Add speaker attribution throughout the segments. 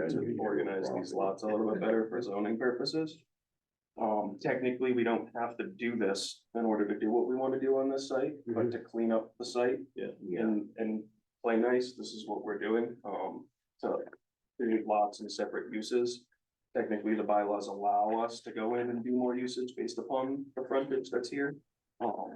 Speaker 1: guys would organize these lots a little bit better for zoning purposes. Um, technically, we don't have to do this in order to do what we want to do on this site, but to clean up the site.
Speaker 2: Yeah.
Speaker 1: And, and play nice, this is what we're doing, um, to create lots and separate uses. Technically, the bylaws allow us to go in and do more usage based upon the frontage that's here. Um,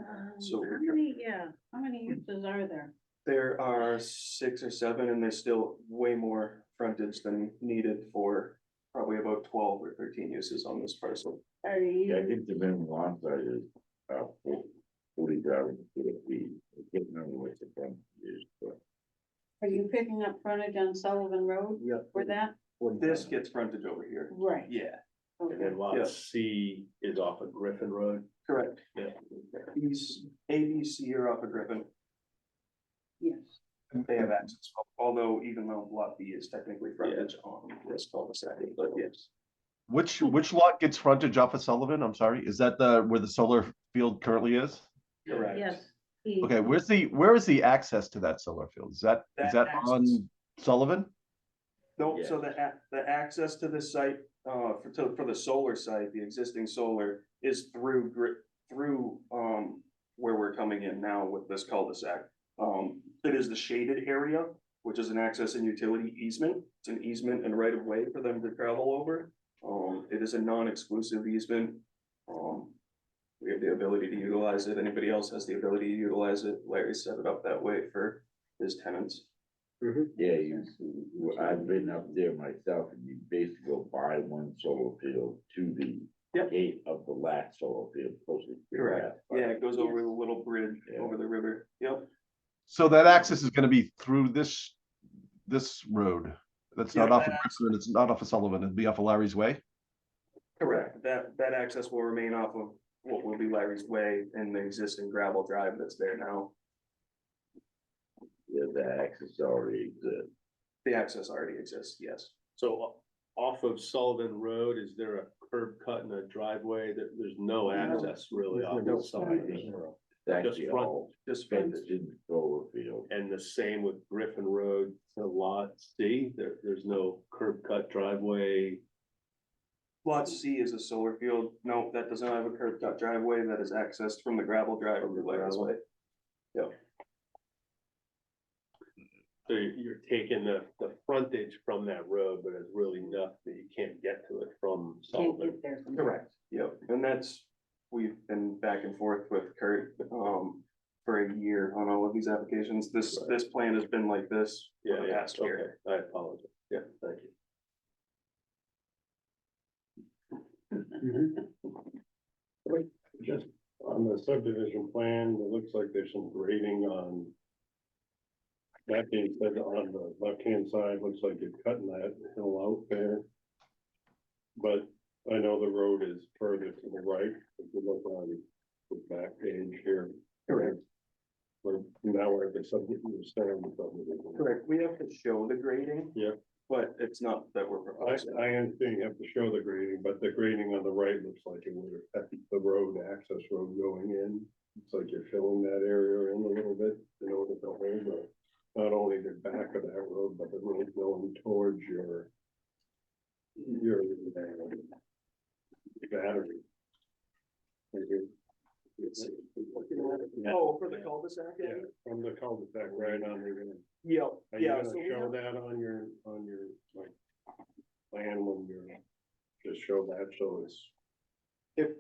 Speaker 1: So-
Speaker 3: How many, yeah, how many uses are there?
Speaker 1: there are six or seven, and there's still way more frontage than needed for probably about twelve or thirteen uses on this parcel.
Speaker 3: Are
Speaker 2: Yeah, I
Speaker 3: you,
Speaker 2: think the minimum lot size is, uh, forty thousand square feet. I can't remember what the front is, but.
Speaker 3: are you picking up frontage on Sullivan Road
Speaker 1: Yeah.
Speaker 3: for that?
Speaker 1: This gets frontage over here.
Speaker 3: Right.
Speaker 1: Yeah,
Speaker 4: And then
Speaker 1: Yeah.
Speaker 4: lot C is off of Griffin Road.
Speaker 1: correct.
Speaker 4: Yeah.
Speaker 1: These A, B, C are off of Griffin.
Speaker 3: Yes.
Speaker 1: They have access, although even though lot B is technically frontage on this cul-de-sac, but yes.
Speaker 5: Which, which lot gets frontage off of Sullivan? I'm sorry, is that the, where the solar field currently is?
Speaker 1: Correct.
Speaker 3: Yes.
Speaker 5: Okay, where's the, where is the access to that solar field? Is that,
Speaker 1: That
Speaker 5: is that
Speaker 1: access-
Speaker 5: on Sullivan?
Speaker 1: No, so
Speaker 4: Yeah.
Speaker 1: the, ac- the access to this site, uh, for, to- for the solar site, the existing solar is through gri- through, um, where we're coming in now with this cul-de-sac. Um, it is the shaded area, which is an access and utility easement. It's an easement and right of way for them to travel over. Um, it is a non-exclusive easement. Um, we have the ability to utilize it. Anybody else has the ability to utilize it. Larry set it up that way for his tenants.
Speaker 2: Yeah, you, well, I've been up there myself and you basically go buy one solar field to the
Speaker 1: Yep.
Speaker 2: gate of the last solar field. closest to
Speaker 1: Correct.
Speaker 2: that.
Speaker 1: Yeah, it goes over
Speaker 3: Yes.
Speaker 1: the little bridge
Speaker 2: Yeah.
Speaker 1: over the river. Yep.
Speaker 5: So that access is gonna be through this, this road. That's not
Speaker 1: Yeah,
Speaker 5: off of
Speaker 1: that
Speaker 5: Griffin, it's not off of Sullivan, it'd be off of Larry's Way.
Speaker 1: Correct. That, that access will remain off of what will be Larry's Way and the existing gravel drive that's there now.
Speaker 2: Yeah, the access already exists.
Speaker 1: The access already exists, yes.
Speaker 4: So o- off of Sullivan Road, is there a curb cut and a driveway that there's no access really off
Speaker 2: No.
Speaker 4: the side?
Speaker 2: It's
Speaker 4: Just
Speaker 2: actually
Speaker 4: front.
Speaker 2: all
Speaker 1: Just
Speaker 2: fenced in solar field.
Speaker 4: And the same with Griffin Road to lot C, there, there's no curb cut driveway.
Speaker 1: lot C is a solar field. No, that does not have a curb cut driveway that is accessed from the gravel drive over Larry's Way.
Speaker 4: So you- you're taking the, the frontage from that road, but it's really enough that you can't get to it from
Speaker 3: Can't
Speaker 4: Sullivan.
Speaker 3: get there from. there.
Speaker 1: Correct. Yep, and that's, we've been back and forth with Kurt, um, for a year on all of these applications. This,
Speaker 4: Right.
Speaker 1: this plan has been like this for
Speaker 4: Yeah,
Speaker 1: the
Speaker 4: yeah,
Speaker 1: past year.
Speaker 4: okay, I apologize. Yeah, thank you.
Speaker 6: Mm-hmm. Just on the subdivision plan, it looks like there's some grading on. That being said, on the left-hand side, looks like you're cutting that hill out there. But I know the road is further to the right, if you look on the back page here.
Speaker 1: Correct.
Speaker 6: We're now we're at the subdivision, starting with subdivision.
Speaker 1: Correct, we have to show the grading.
Speaker 6: Yeah.
Speaker 1: But it's not that we're
Speaker 6: I,
Speaker 1: proposing.
Speaker 6: I understand you have to show the grading, but the grading on the right looks like it would affect the road, the access road going in. It's like you're filling that area in a little bit, you know, to the way, but not only the back of that road, but the road going towards your your uh, battery.
Speaker 1: Oh, for the cul-de-sac?
Speaker 6: Yeah, from the cul-de-sac right on the.
Speaker 1: Yeah,
Speaker 6: Are you
Speaker 1: yeah.
Speaker 6: gonna
Speaker 1: so we
Speaker 6: show
Speaker 1: have-
Speaker 6: that on your, on your, like, plan when you're, just show that, so it's,
Speaker 1: if-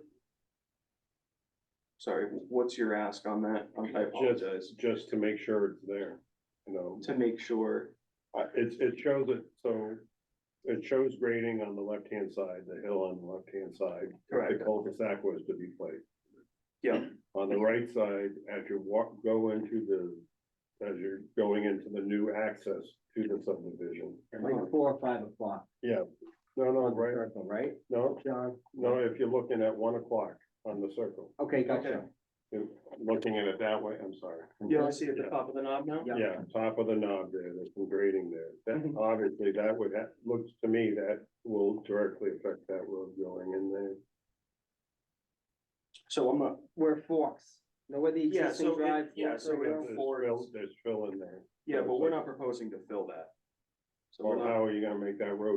Speaker 1: Sorry, what's your ask on that? I
Speaker 6: just,
Speaker 1: apologize.
Speaker 6: just to make sure it's there, you know?
Speaker 1: To make sure,
Speaker 6: Uh, It, it shows it, so it shows grading on the left-hand side, the hill on the left-hand side. where
Speaker 1: Correct.
Speaker 6: The cul-de-sac was to be placed.
Speaker 1: Yeah.
Speaker 6: On the right side, as you walk, go into the, as you're going into the new access to the subdivision.
Speaker 7: Like four or five o'clock,
Speaker 6: No, no, right,
Speaker 7: circle, right,
Speaker 6: no,
Speaker 7: John?
Speaker 6: no, if you're looking at one o'clock on the circle,
Speaker 7: Okay, gotcha.
Speaker 6: if- looking at it that way, I'm sorry.
Speaker 1: yeah, I see at the
Speaker 6: Yeah.
Speaker 1: top of the knob now?
Speaker 7: Yeah.
Speaker 6: Yeah, top of the knob there, there's some grading there. That,
Speaker 1: Mhm.
Speaker 6: obviously, that would, that looks to me that will directly affect that road going in there.
Speaker 1: So I'm not,
Speaker 7: Where forks, know where the
Speaker 1: Yeah, so
Speaker 7: existing
Speaker 1: it-
Speaker 7: drive?
Speaker 1: yeah,
Speaker 7: forks
Speaker 1: so
Speaker 7: are
Speaker 1: it-
Speaker 7: now?
Speaker 6: There's
Speaker 1: Forward.
Speaker 6: fill, there's fill in there.
Speaker 1: yeah, but we're not proposing to fill that. So we're
Speaker 6: Or
Speaker 1: not
Speaker 6: how are you gonna make that road